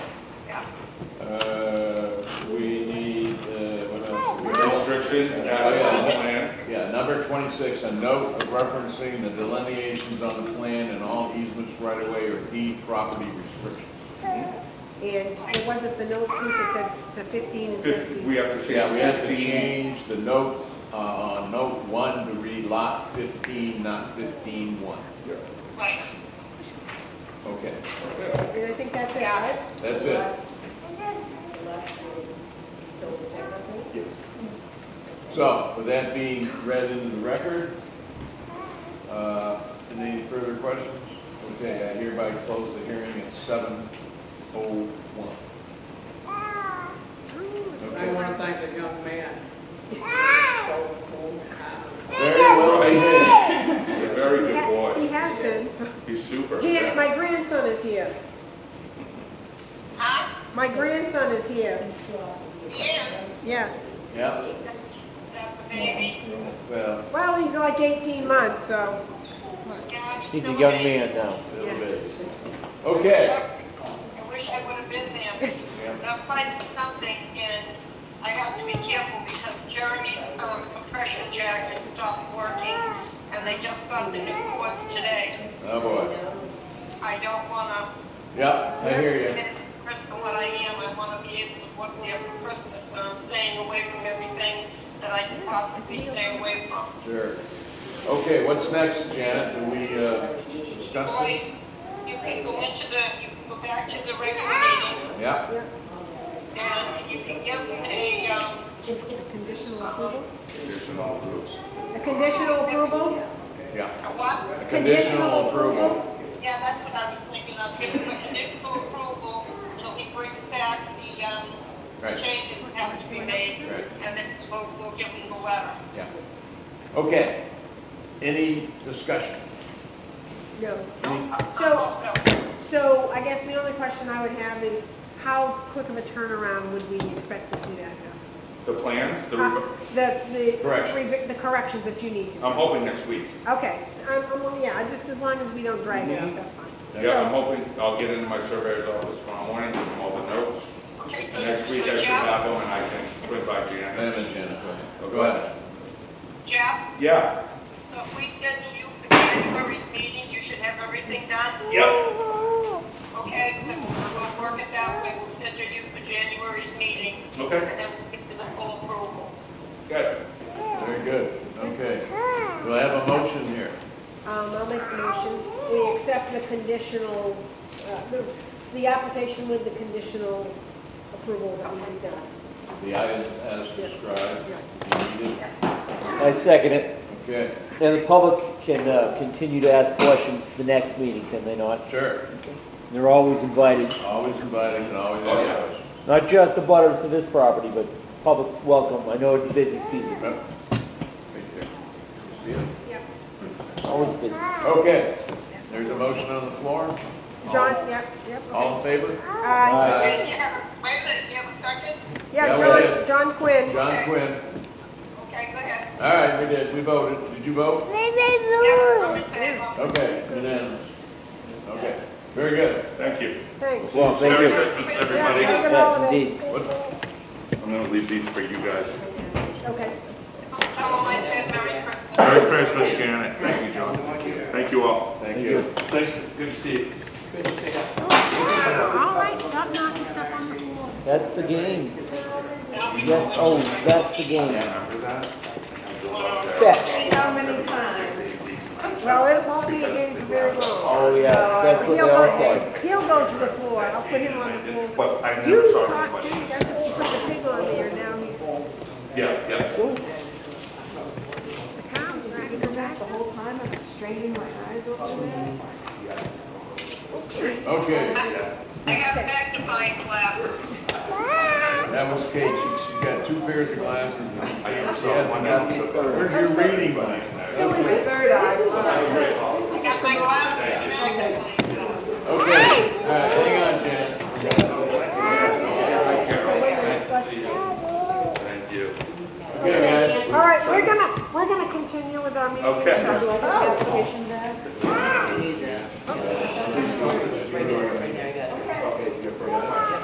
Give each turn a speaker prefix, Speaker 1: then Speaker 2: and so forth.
Speaker 1: Uh,
Speaker 2: citizens out of uh, the plan.
Speaker 1: Yeah, number twenty-six, a note of referencing the delineations on the plan and all easements right away or deed property restrictions.
Speaker 3: And it wasn't the notes piece that said to 15 and
Speaker 2: Fifty, we
Speaker 3: 17.
Speaker 2: have to
Speaker 1: Yeah, we
Speaker 2: change
Speaker 1: have to
Speaker 2: fifteen.
Speaker 1: change the note, uh, on note one to read lot fifteen, not fifteen one.
Speaker 2: Yeah.
Speaker 4: Right.
Speaker 1: Okay,
Speaker 2: Yeah.
Speaker 3: And I think that's it, right?
Speaker 1: that's it.
Speaker 3: So is everything?
Speaker 1: So, with that being read into the record, uh, any further questions? Okay, I hereby close the hearing at seven oh one.
Speaker 5: I
Speaker 1: Okay.
Speaker 5: want to thank the young man. So cool, kind.
Speaker 1: Very well behaved.
Speaker 2: He's a very good
Speaker 3: He
Speaker 2: boy.
Speaker 3: has been. so-
Speaker 2: He's super.
Speaker 3: Janet, my grandson is here.
Speaker 4: Huh?
Speaker 3: My grandson is here.
Speaker 4: Yeah.
Speaker 3: Yes.
Speaker 1: Yep,
Speaker 4: That's the baby.
Speaker 1: well,
Speaker 3: Well, he's like 18 months, so.
Speaker 4: God,
Speaker 6: He's a
Speaker 4: so
Speaker 6: young
Speaker 4: amazing.
Speaker 6: man now.
Speaker 1: a little bit. Okay.
Speaker 4: I wish I would have been there.
Speaker 1: Yeah.
Speaker 4: But I applied for something and I have to be careful because Jeremy's um, compression jacket stopped working and they just got the new ones today.
Speaker 1: Oh, boy.
Speaker 4: I don't want
Speaker 1: Yep, I hear
Speaker 4: to
Speaker 1: you.
Speaker 4: miss Krista what I am. I want to be able to work there for Christmas. So I'm staying away from everything that I can possibly stay away from.
Speaker 1: Sure. Okay, what's next, Janet? Do we uh, discuss
Speaker 4: Roy,
Speaker 1: this?
Speaker 4: you can go into the, you can go back to the regular meeting
Speaker 1: Yeah,
Speaker 4: and you can give them a, um,
Speaker 3: Conditional approval?
Speaker 4: a
Speaker 1: conditional approval.
Speaker 3: A conditional approval?
Speaker 1: Yeah,
Speaker 4: what?
Speaker 1: a conditional approval.
Speaker 4: Yeah, that's what I was thinking, I'll give him a conditional approval till he brings back the, um,
Speaker 1: Right.
Speaker 4: changes that have to be made,
Speaker 1: Right.
Speaker 4: and then we'll, we'll give him the letter.
Speaker 1: Yeah. Okay. Any discussion?
Speaker 3: No.
Speaker 1: Any-
Speaker 3: So,
Speaker 4: Also,
Speaker 3: so I guess the only question I would have is, how quick of a turnaround would we expect to see that? now?
Speaker 2: The plans, the,
Speaker 3: Uh,
Speaker 2: re-
Speaker 3: The, the.
Speaker 1: Correction.
Speaker 3: revi- The corrections that you need to. do.
Speaker 2: I'm hoping next week.
Speaker 3: Okay, I'm, I'm, yeah, just as long as we don't drag it, out, that's fine.
Speaker 2: Yeah, I'm hoping, I'll get into my surveyor's office tomorrow morning, give him all the notes.
Speaker 4: okay, so.
Speaker 2: Next week I should have them and I can swing by Janet.
Speaker 1: Amendment, Janet, go ahead. Oh, Go ahead.
Speaker 4: Jeff,
Speaker 2: Yeah,
Speaker 4: so if we schedule you for January's meeting, you should have everything done?
Speaker 2: yep,
Speaker 4: Okay, so we'll work it that way, we'll schedule you for January's meeting, and
Speaker 2: okay,
Speaker 4: then we'll get to the full approval.
Speaker 2: good.
Speaker 1: Very good. Okay. Do I have a motion here?
Speaker 3: Um, I'll make the motion, we accept the conditional, uh, the, the application with the conditional approval that we've done.
Speaker 1: The items as described. You need it?
Speaker 6: I second it.
Speaker 1: Okay,
Speaker 6: And the public can uh, continue to ask questions the next meeting, can they not?
Speaker 1: sure.
Speaker 6: They're always invited,
Speaker 1: Always invited and always
Speaker 2: Oh, yeah.
Speaker 1: asked.
Speaker 6: not just the butters to this property, but public's welcome. I know it's a busy season,
Speaker 1: Yep. Right there. You see it?
Speaker 6: always busy.
Speaker 1: Okay, there's a motion on the floor.
Speaker 3: John, yep, yep. okay.
Speaker 1: All in favor?
Speaker 3: Uh,
Speaker 1: Aye.
Speaker 4: Okay, you have, a- wait a minute, you have a second?
Speaker 3: yeah,
Speaker 1: Yeah, we
Speaker 3: John,
Speaker 1: did.
Speaker 3: John Quinn,
Speaker 1: John Quinn.
Speaker 4: Okay, go ahead.
Speaker 1: All right, we did, we voted. Did you vote?
Speaker 3: Uh,
Speaker 4: Yeah, I'm in favor.
Speaker 1: Okay, unanimous. Okay, very good.
Speaker 2: Thank you.
Speaker 3: thanks.
Speaker 6: Well, thank
Speaker 2: Merry
Speaker 6: you.
Speaker 2: Christmas,
Speaker 3: Yeah,
Speaker 2: everybody.
Speaker 3: make them all
Speaker 6: Yes,
Speaker 3: of it.
Speaker 6: indeed.
Speaker 1: What-
Speaker 2: I'm gonna leave these for you guys.
Speaker 3: Okay.
Speaker 4: Tell them I said Merry Christmas.
Speaker 2: Merry Christmas, Janet. Thank you, John. Thank you all.
Speaker 1: Thank you.
Speaker 2: Thanks, good to see you.
Speaker 5: Good to see you.
Speaker 7: All right, stop knocking stuff on the floor.
Speaker 6: That's the game. Yes, oh, that's the game. Fetch.
Speaker 3: How many times? Well, it won't be again for very long. Uh,
Speaker 6: Oh, yes, that's
Speaker 3: He'll
Speaker 6: what they all say.
Speaker 3: go, he'll go to the floor, I'll put him on the floor.
Speaker 2: But I never
Speaker 3: You
Speaker 2: saw
Speaker 3: talk, see,
Speaker 2: anybody.
Speaker 3: that's what she put the pig on there, now he's, the
Speaker 2: Yeah, yeah.
Speaker 3: cow's right.
Speaker 7: I've been back the whole time, I've been straining my eyes over there.
Speaker 1: Okay,
Speaker 4: I have magnifying glasses.
Speaker 1: that was Kate. She- She's got two pairs of glasses. and
Speaker 2: I never
Speaker 1: She
Speaker 2: saw
Speaker 1: hasn't
Speaker 2: one.
Speaker 1: got
Speaker 2: that was so-
Speaker 1: Where's your reading glasses?
Speaker 3: So is this, this is just
Speaker 4: I got my glasses and magnifying glasses.
Speaker 1: Okay, all right, hang on, Janet.
Speaker 2: Thank you.
Speaker 1: Okay, guys.
Speaker 3: All right, we're gonna, we're gonna continue with our meeting.
Speaker 2: Okay.
Speaker 3: So do I have the application